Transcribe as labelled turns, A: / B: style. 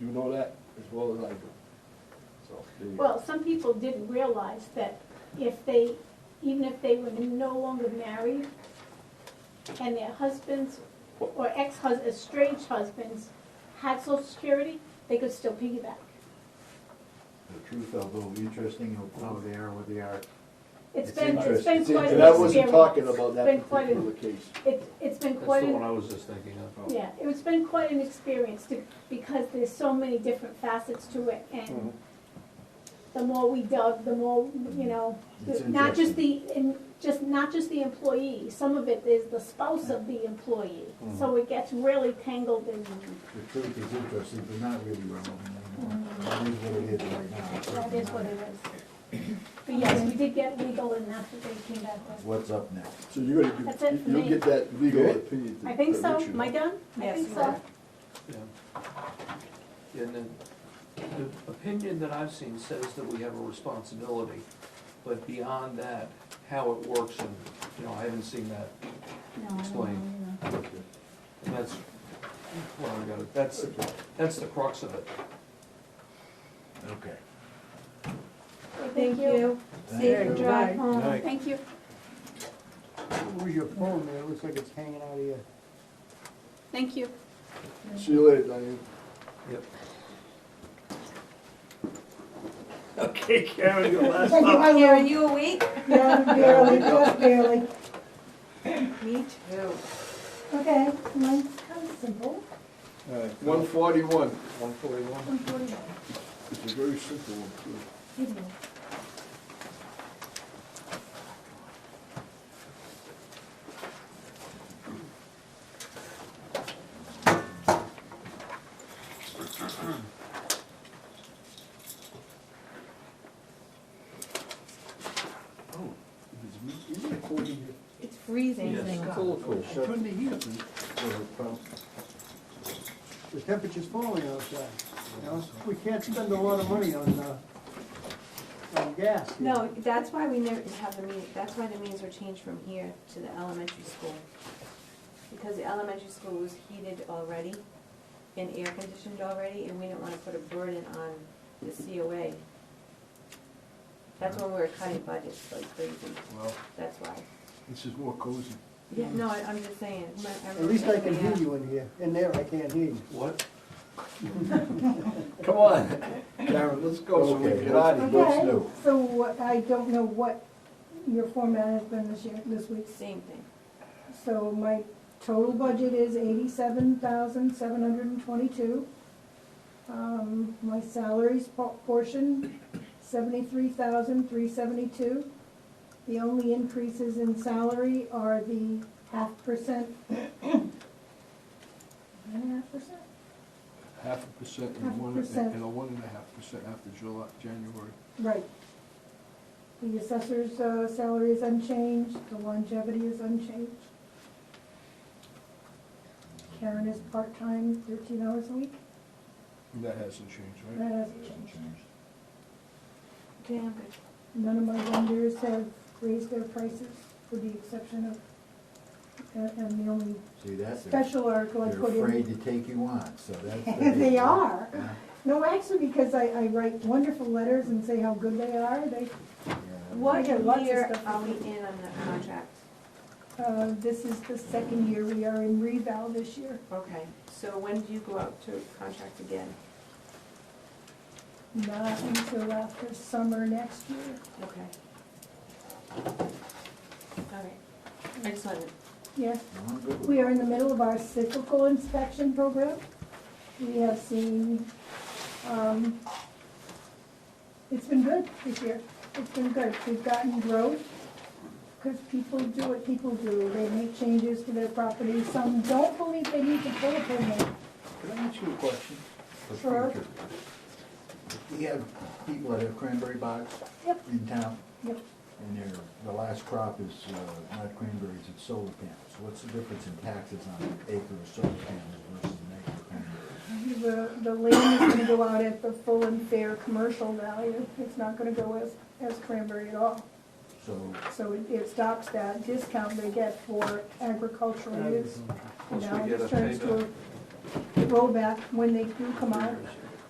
A: know that as well as I do. So, there you go.
B: Well, some people didn't realize that if they, even if they were no longer married, and their husbands or ex-hus, uh, estranged husbands had social security, they could still piggyback.
C: The truth, although interesting, of how they are, what they are.
B: It's
C: It's
B: been, it's
C: interesting.
B: been
A: See,
B: quite
A: And
B: an
A: I wasn't
B: experience.
A: talking about
B: Been
A: that
B: quite
A: particular
B: an,
A: case.
B: it's, it's been
D: That's
B: quite
D: the one I
B: an,
D: was just thinking of.
B: yeah, it's been quite an experience to, because there's so many different facets to it, and the more we dug, the more, you know,
C: It's
B: not just the, in- just, not just the employee, some of it is the spouse of the employee. So it gets really tangled in,
C: The truth is interesting, but not really relevant anymore. That is what it is right now. It's
B: that is what
C: not.
B: it is. But yes, we did get legal and that's what they came back with.
C: What's up next?
A: So you're gonna,
B: That's it
A: get-
B: for
A: you'll
B: me.
A: get that legal
C: Good.
A: opinion. to-
B: I think
A: to
B: so,
A: let you
B: am I
A: know.
B: done? I
E: Yes,
B: think
E: you
B: so.
E: are.
D: Yeah. Yeah, And then, the opinion that I've seen says that we have a responsibility, but beyond that, how it works, and, you know, I haven't seen that.
B: No, I don't
D: Explain.
B: know,
D: And that's, well, I got it, that's, that's the crux of it.
C: Okay.
B: you know.
E: Thank you. Safe
C: Thank you.
E: drive home.
C: Night.
B: Thank you.
F: Where's your phone, man? It looks like it's hanging out of you.
B: Thank you.
A: See you later, Diane.
D: Yep.
G: Okay, Karen, your last up.
E: Karen, you awake?
H: Yeah, barely, just barely.
E: Me too.
H: Okay, mine's kind of simple.
A: One forty-one,
D: One forty-one.
H: One forty-one.
A: it's a very simple one, too. Oh, is it recording here?
E: It's freezing.
A: It's a little cold. Turn the heat up.
F: The temperature's falling outside, you know? We can't spend a lot of money on, uh, on gas. here.
E: No, that's why we never have the meeting, that's why the meetings were changed from here to the elementary school. Because the elementary school was heated already and air conditioned already, and we didn't wanna put a burden on the COA. That's when we were cutting budgets like crazy,
D: Well,
E: that's why.
A: This is more cozy.
E: Yeah, no, I- I'm just saying. my- I'm-
F: At least I can
E: yeah.
F: hear you in here. In there, I can't hear you.
D: what,
A: Come on, Karen, let's go so we can get out of here.
H: Okay, so what, I don't know what your format has been this year, this week.
E: Same thing.
H: So my total budget is eighty-seven thousand, seven hundred and twenty-two. Um, my salaries po- portion, seventy-three thousand, three seventy-two. The only increases in salary are the half percent. Nine and a half percent?
A: Half a percent
H: Half a
A: and one,
H: percent.
A: and a one and a half percent after July, January.
H: Right. The assessor's uh, salary is unchanged, the longevity is unchanged. Karen is part-time, thirteen hours a week,
A: And That hasn't changed, right?
H: that hasn't changed.
E: Okay, I'm good.
H: None of my vendors have raised their prices, with the exception of, and- and the only
C: See, that's, they're
H: special article I
C: they're
H: put
C: afraid
H: in.
C: to take you on, so that's the big
H: They
C: one.
H: are.
C: Yeah,
H: No, actually, because I, I write wonderful letters and say how good they are, they,
C: yeah.
H: I
E: What
H: get lots of
E: year
H: stuff
E: are
H: from
E: we in on the contract?
H: uh, this is the second year we are in reval this year.
E: Okay, so when do you go out to contract again?
H: Not until after summer next year.
E: Okay. All right, I just wanted,
H: Yes,
C: Well, good one.
H: we are in the middle of our cyclical inspection program. We have seen, um, it's been good this year. It's been good. We've gotten growth because people do what people do. They make changes to their property. Some don't believe they need to pull a permit.
C: Can I ask you a question? for
H: Sure.
C: future? We have people that have cranberry bogs
H: Yep.
C: in town,
H: Yep.
C: and their, the last crop is uh, not cranberries, it's solar panels. What's the difference in taxes on an acre of solar panels versus an acre of cranberries?
H: The, the land is gonna go out at the full and fair commercial value. It's not gonna go as, as cranberry at all.
C: So
H: So it, it stops that discount they get for agricultural use.
D: Plus we
H: Now it
D: get a
H: just turns to a
D: payback.
H: rollback when they do come out.